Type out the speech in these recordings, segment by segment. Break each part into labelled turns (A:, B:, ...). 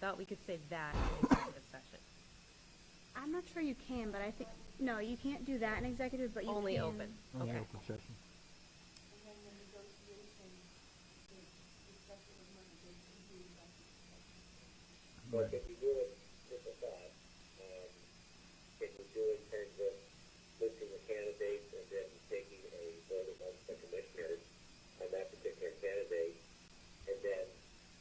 A: thought we could say that in executive session.
B: I'm not sure you can, but I think, no, you can't do that in executive, but you can.
A: Only open,
C: Only
A: okay.
C: open session.
D: But if you do it with a thought, um, if you do it in terms of listing the candidates and then taking a vote amongst the commissioners on that particular candidate, and then,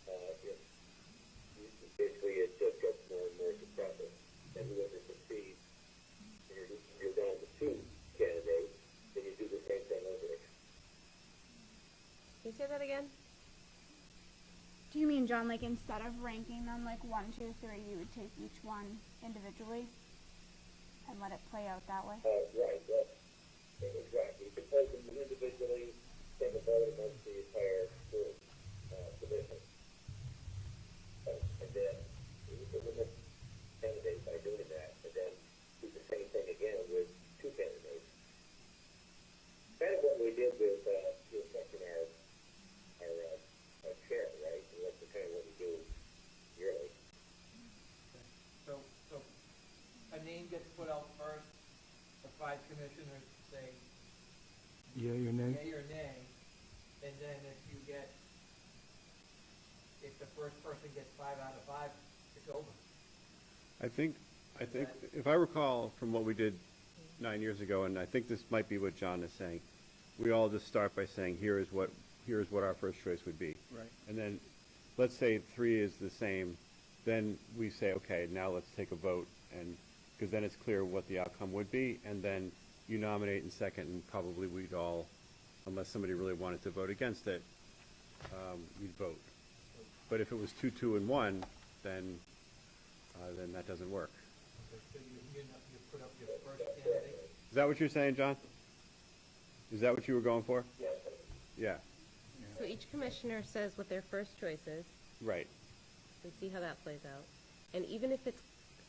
D: uh, if, you- basically it just gets more and more compressive, then whoever succeeds, you're, you're down to two candidates, then you do the same thing over again.
A: Can you say that again?
B: Do you mean, John, like instead of ranking them like one, two, three, you would take each one individually and let it play out that way?
D: Uh, right, well, exactly, because them individually, take a vote amongst the entire group, uh, division. Uh, And then, you can limit candidates by doing that, and then do the same thing again with two candidates. Kind of what we did with, uh, the election our, our, uh, our chair, right, and that's the kind of what we do yearly.
E: So, so a name gets put out first, the five commissioners say
C: Yeah, your name?
E: yea or nay, and then if you get, if the first person gets five out of five, it's over.
F: I think, I think, if I recall from what we did nine years ago, and I think this might be what John is saying, we all just start by saying, here is what, here is what our first choice would be.
C: Right.
F: And then, let's say three is the same, then we say, okay, now let's take a vote, and, because then it's clear what the outcome would be, and then you nominate in second, and probably we'd all, unless somebody really wanted to vote against it, um, you'd vote. But if it was two, two, and one, then, uh, then that doesn't work.
E: So you, you know, you put up your first candidate,
F: Is that what you're saying, John? Is that what you were going for? Yeah,
A: So each commissioner says what their first choice is,
F: right.
A: we see how that plays out. And even if it's,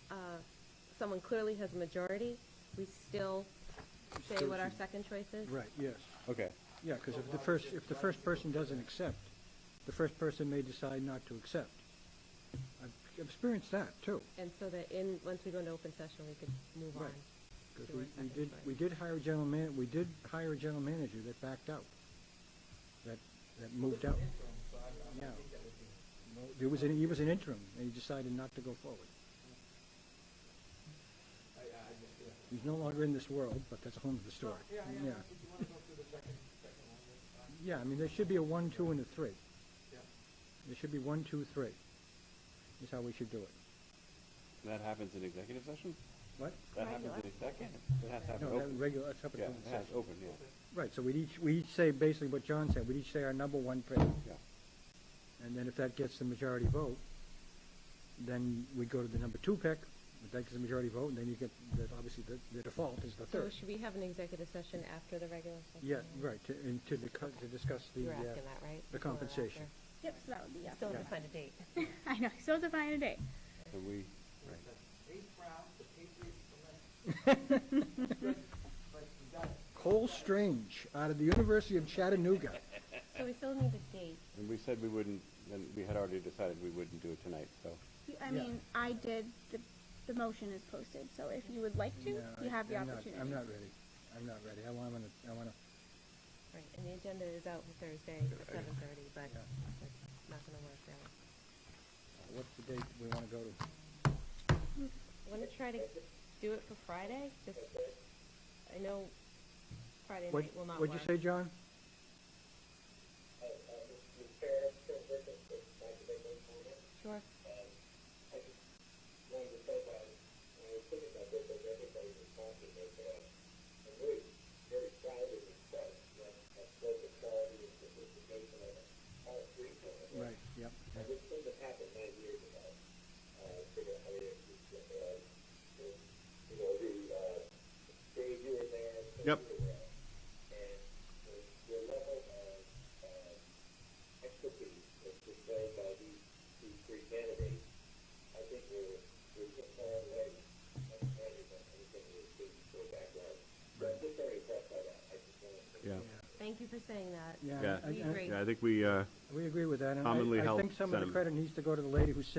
A: uh, someone clearly has a majority, we still say what our second choice is?
C: Right, yes.
F: Okay,
C: Yeah, because if the first, if the first person doesn't accept, the first person may decide not to accept. I've I've experienced that, too.
A: And so that in, once we go into open session, we could move on.
C: Right. Because
A: to
C: we,
A: our
C: we
A: second
C: did,
A: choice.
C: we did hire a general man, we did hire a general manager that backed out. That, that moved out.
E: so I, I
C: Yeah.
E: think that would be.
C: There was an, he was an interim, and he decided not to go forward. He's no longer in this world, but that's a whole other story. Yeah, yeah. I mean, there should be a one, two, and a three. There should be one, two, three, is how we should do it.
F: that happens in executive session?
C: What?
F: That happens in executive? It has to happen
C: No, that
F: open.
C: regular, that's up at
F: Yeah,
C: open
F: it has
C: session.
F: open, yeah,
C: Right, so we each, we each say basically what John said, we each say our number one pick,
F: yeah.
C: and then if that gets the majority vote, then we go to the number two pick, if that gets the majority vote, and then you get, the- obviously, the, the default is the
A: So
C: third.
A: should we have an executive session after the regular session?
C: Yeah, right, to, and to, discuss- to discuss the,
A: You're
C: uh,
A: asking that, right?
C: the
A: Before or
C: compensation.
A: after?
B: Yep, so that would be,
A: Still
B: yeah.
A: have to find a date.
B: I know, still define a date.
F: And we, right.
E: Eighth round, the Patriots select. But you got it.
C: Cole Strange, out of the University of Chattanooga.
A: So we still need a date.
F: and we said we wouldn't, and we had already decided we wouldn't do it tonight, so.
B: You- I
C: Yeah.
B: mean, I did, the, the motion is posted, so if you would like to,
C: No, I-
B: you have the
C: I'm not-
B: opportunity.
C: I'm not ready, I'm not ready, I wanna, I wanna,
A: Right, and the agenda is out for Thursday at seven thirty, but
C: Yeah.
A: it's not gonna work out.
C: what's the date we wanna go to?
A: I wanna try to do it for Friday, just, I know Friday
C: What,
A: night will not work.
C: what'd you say, John?
D: Uh, uh, the chair, Chair Griffin, if I could make one comment.
A: Sure.
D: I just wanted to say that, when I was thinking about this, as everybody was talking, that, uh, I'm really very proud of this stuff, that, that both the quality and sophistication of all three of us.
C: Right, yep.
D: And this thing that happened nine years ago, uh, figure out how to, uh, you know, the, uh, Dave, you were there. so
F: Yep.
D: you were there. And the, the level of, uh, expertise that's displayed by these, these three candidates, I think we're, we're just far away from management, anything we're speaking to a background. But I'm just very impressed by that, I just wanted to.
F: Yeah.
A: Thank you for saying that.
C: Yeah,
F: Yeah.
C: I-
A: We
C: I-
A: agree.
F: Yeah, I think we, uh,
C: we agree with that, and
F: Commonly
C: I, I
F: held
C: think some of the
F: sentiment.
C: credit needs to go to the lady who said